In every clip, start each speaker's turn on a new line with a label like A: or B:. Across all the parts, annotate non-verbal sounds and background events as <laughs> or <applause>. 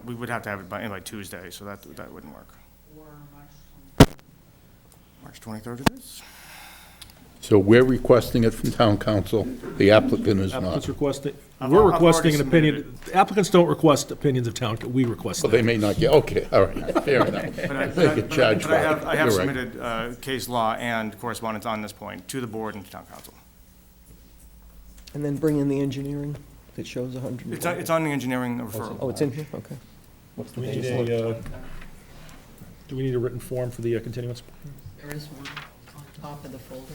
A: we would have to have it by, in by Tuesday, so that, that wouldn't work.
B: or March
A: March 23rd it is?
C: So we're requesting it from town council, the applicant is
D: Applicants
C: not.
D: requesting,
A: I've- I've
D: we're
A: already
D: requesting an
A: submitted
D: opinion, applicants don't request opinions of town, we request
C: Well, they
D: that.
C: may not get, okay, all right, fair enough.
A: But I-
C: They
A: but
C: get
A: I-
C: charged
A: But I
C: for it.
A: have, I have
C: You're right.
A: submitted uh, case law and correspondence on this point to the board and to town council.
E: And then bring in the engineering that shows 100.
A: It's, on- it's on the engineering referral.
E: Oh, it's in here, okay.
D: Do we need a, uh, do we need a written form for the uh, continuance?
B: 23rd. There is one on top of the folder.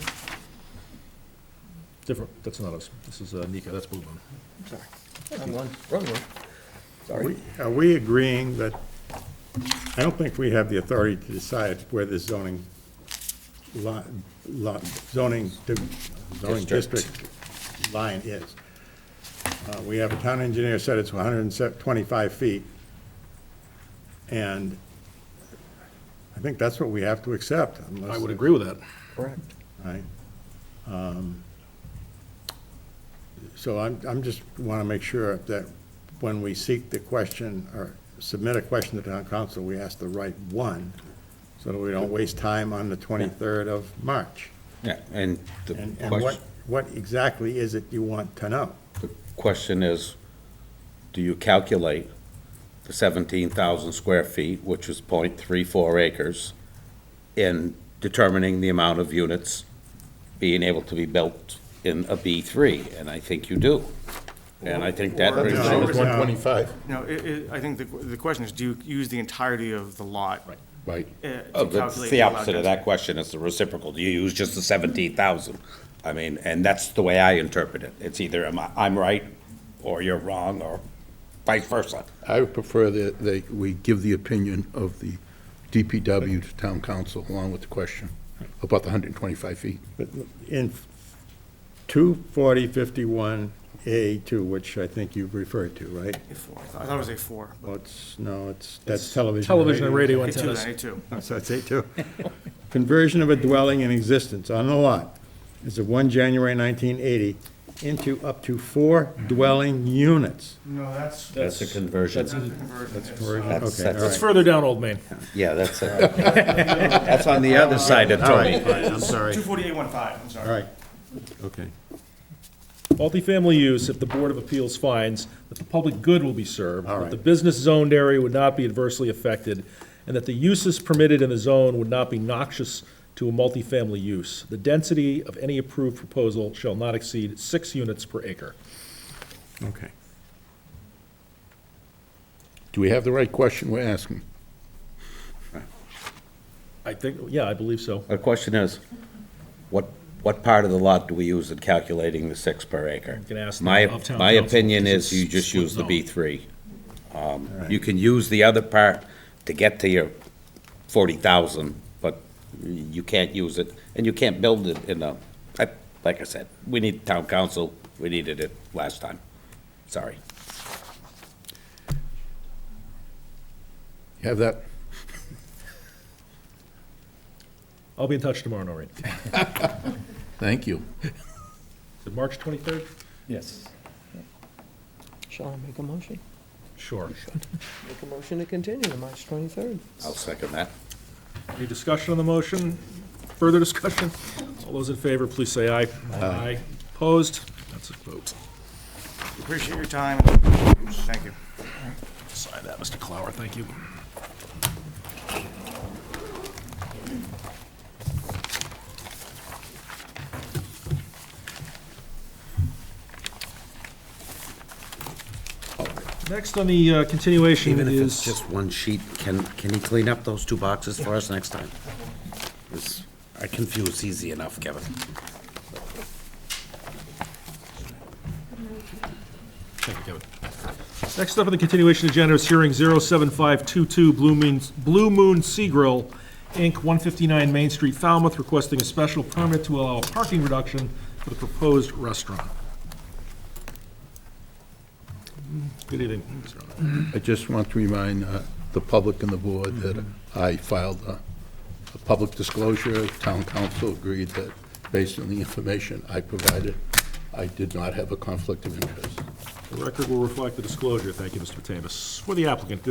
D: Different, that's not us, this is uh, Nika, that's Blue Moon.
E: Wrong one, wrong one. Sorry.
F: Are we agreeing that, I don't think we have the authority to decide where this zoning, lot, lot, zoning, di- zoning district line is. Uh, We have a town engineer said it's 125 feet, and I think that's what we have to accept unless.
D: I would agree with that.
E: Correct.
F: Right? Um, So I'm, I'm just want to make sure that when we seek the question or submit a question to town council, we ask the right one so that we don't waste time on the 23rd of March.
G: Yeah, and the
F: And, and what,
G: question,
F: what exactly is it you want to know?
G: the question is, do you calculate the seventeen thousand square feet, which is point three four acres, in determining the amount of units being able to be built in a B three? And I think you do. And I think that
A: Or-
G: brings
F: No.
C: It
G: you,
C: was 125,
A: No, it, it, I think the, the question is, do you use the entirety of the lot? uh, Right.
C: right.
G: Oh, that's the opposite of that question, it's the reciprocal, do you use just the seventeen thousand? I mean, and that's the way I interpret it, it's either am I- I'm right, or you're wrong, or vice versa.
C: I would prefer that they, we give the opinion of the DPW to town council along with the question about the 125 feet.
F: But In 24051A2, which I think you've referred to, right?
A: A four. I thought I thought it was a four.
F: Well, it's, no, it's, that's television.
D: Television and radio
A: A two,
D: antennas.
A: then, a two.
F: <laughs> So I'd say two. Conversion of a dwelling in existence on the lot as of 1 January 1980 into up to four dwelling units.
A: No, that's.
G: That's a conversion.
A: That's
G: That's-
F: Okay, all
D: It's
F: right.
D: further down Old Main.
G: Yeah, that's, it. that's on the other side of
F: All right,
G: Tony.
F: fine, I'm sorry.
A: Two forty-eight one five, I'm sorry.
F: All right, okay.
D: Multifamily use, if the Board of Appeals finds that the public good will be served,
F: All
D: that
F: right.
D: the business zoned area would not be adversely affected, and that the uses permitted in the zone would not be noxious to a multifamily use. The density of any approved proposal shall not exceed six units per acre.
F: Okay.
C: Do we have the right question we're asking?
D: I think, yeah, I believe so.
G: The question is, what, what part of the lot do we use in calculating the six per acre?
D: can ask the
G: My,
D: uptown
G: my
D: council,
G: opinion
D: because
G: is you
D: it's
G: just
D: split
G: use the
D: zone.
G: B three. Um, You can use the other part to get to your forty thousand, but you can't use it, and you can't build it in a, I- like I said, we need town council, we needed it last time, sorry.
C: You have that?
D: I'll be in touch tomorrow, Noreen. Is
C: Thank you.
D: it March 23rd?
E: Shall I make a motion?
D: Sure.
E: Make a motion to continue to March 23rd.
G: I'll second that.
D: Any discussion on the motion? Further discussion? All those in favor, please say aye. Aye. Opposed? That's a vote.
A: Appreciate your time. Thank you.
D: Sign that, Mr. Clower, thank you. Next on the uh, continuation
G: Even if it's
D: is,
G: just one sheet, can, can he clean up those two boxes for us next time? This- I confuse easy enough, Kevin.
D: next up on the continuation agenda is hearing 07522 Blue Moon, Blue Moon Sea Grill, Inc., 159 Main Street, Falmouth, requesting a special permit to allow a parking reduction for the proposed restaurant. Good evening, Mr. Owner.
C: I just want to remind uh, the public and the board that I filed a a public disclosure. Town council agreed that based on the information I provided, I did not have a conflict of interest.
D: The record will reflect the disclosure. Thank you, Mr. Tavis. For the applicant,